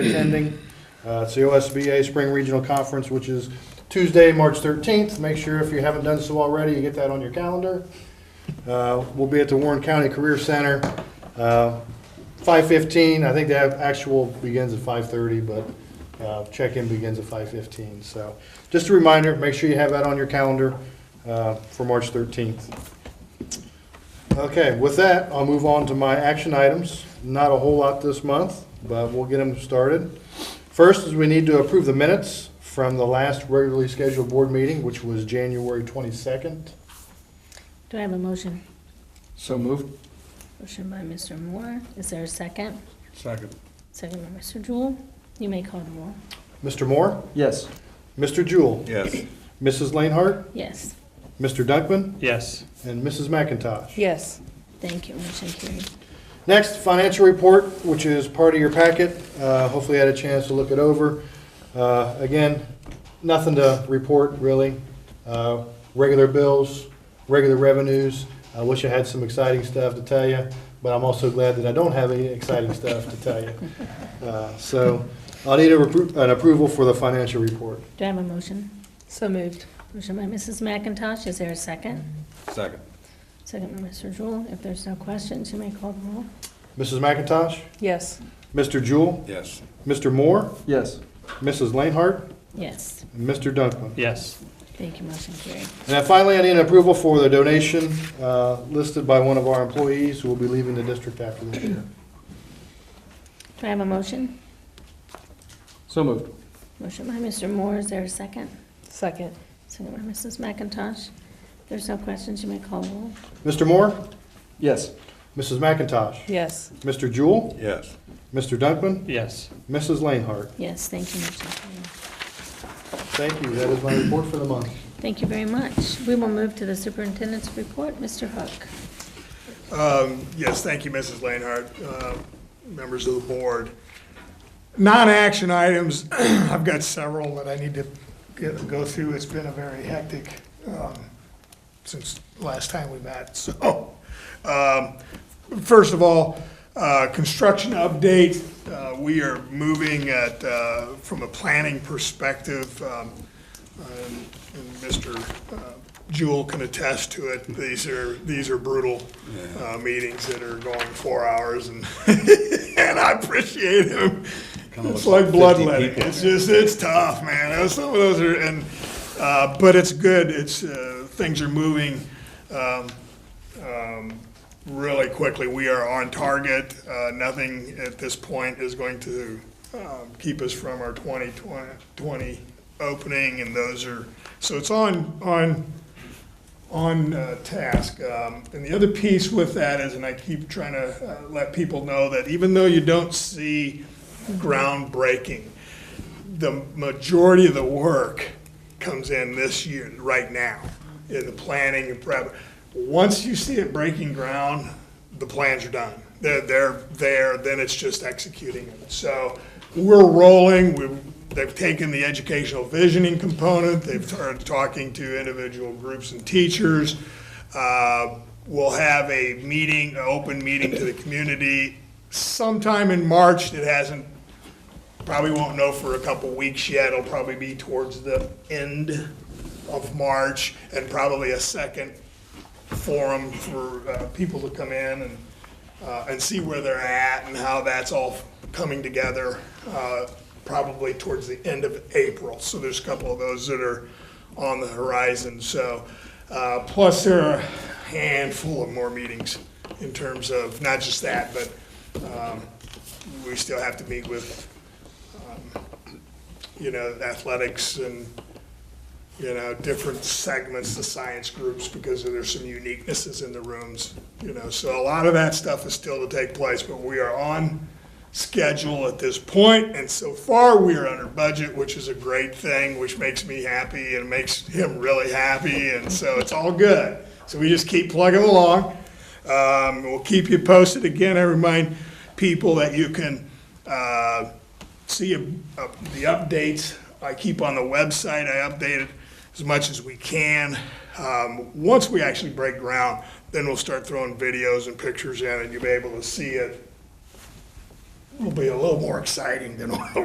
attending. Uh, It's the OSBA Spring Regional Conference, which is Tuesday, March 13th. Make sure if you haven't done so already, you get that on your calendar. Uh, We'll be at the Warren County Career Center, uh, 5:15. I think the actual begins at 5:30, but uh, check-in begins at 5:15. So just a reminder, make sure you have that on your calendar uh, for March 13th. Okay, with that, I'll move on to my action items. Not a whole lot this month, but we'll get them started. First is we need to approve the minutes from the last regularly scheduled board meeting, which was January 22nd. Do I have a motion? So moved. Motion by Mr. Moore. Is there a second? Second. Second by Mr. Jewell. You may call the roll. Mr. Moore, Yes. Mr. Jewell, Yes. Mrs. Lainhart, Yes, Mr. Dunkman, Yes. and Mrs. McIntosh. Yes, thank you. Motion carried. Next, financial report, which is part of your packet. Uh, Hopefully you had a chance to look it over. Uh, Again, nothing to report, really. Uh, Regular bills, regular revenues. I wish I had some exciting stuff to tell you, but I'm also glad that I don't have any exciting stuff to tell you. Uh, So I'll need a repro- an approval for the financial report. Do I have a motion? so moved. Motion by Mrs. McIntosh. Is there a second? Second. Second by Mr. Jewell. If there's no questions, you may call the roll. Mrs. McIntosh, Yes, Mr. Jewell, Yes. Mr. Moore, Yes. Mrs. Lainhart, Yes, and Mr. Dunkman. Yes. thank you. Motion carried. And then finally, I need approval for the donation uh, listed by one of our employees who will be leaving the district after this year. Do I have a motion? So moved. Motion by Mr. Moore. Is there a second? second. Second by Mrs. McIntosh. If there's no questions, you may call the roll. Mr. Moore, Yes. Mrs. McIntosh, Yes, Mr. Jewell, Yes. Mr. Dunkman, Yes. Mrs. Lanehart. Yes, thank you. Motion carried. Thank you. That is my report for the month. Thank you very much. We will move to the superintendent's report. Mr. Hook. Um, Yes, thank you, Mrs. Lanehart, uh, members of the board. Non-action items, I've got several that I need to get- go through. It's been a very hectic um, since last time we met, so. um, First of all, uh, construction update, uh, we are moving at, uh, from a planning perspective, um, um, and Mr. uh, Jewell can attest to it, these are, these are brutal uh, meetings that are going four hours, and, and I appreciate him. It's like bloodletting, it's just, it's tough, man, Those- some of those are, and, uh, but it's good, it's, uh, things are moving um, um, really quickly. We are on target, Uh, nothing at this point is going to um, keep us from our 2020 opening, and those are, so it's on, on on uh, task. Um, And the other piece with that is, and I keep trying to uh, let people know that even though you don't see groundbreaking, the majority of the work comes in this year, right now, in the planning and prep. Once you see it breaking ground, the plans are done. They're, they're there, then it's just executing them. So we're rolling, we, they've taken the educational visioning component, they've started talking to individual groups and teachers. Uh, We'll have a meeting, an open meeting to the community sometime in March. It hasn't Probably won't know for a couple weeks yet. It'll probably be towards the end of March and probably a second forum for uh, people to come in and, uh, and see where they're at and how that's all coming together, uh, probably towards the end of April. So there's a couple of those that are on the horizon. So, uh, plus there are a handful of more meetings in terms of not just that, but um, we still have to meet with you know, athletics and, you know, different segments, the science groups, because there's some uniquenesses in the rooms, you know, so a lot of that stuff is still to take place, but we are on schedule at this point, and so far, we are under budget, which is a great thing, which makes me happy and makes him really happy, and so it's all good. So we just keep plugging along. Um, we'll keep you posted. Again, I remind people that you can, uh, see uh, the updates I keep on the website. I update it as much as we can. Um, Once we actually break ground, then we'll start throwing videos and pictures in, and you'll be able to see it will be a little more exciting than what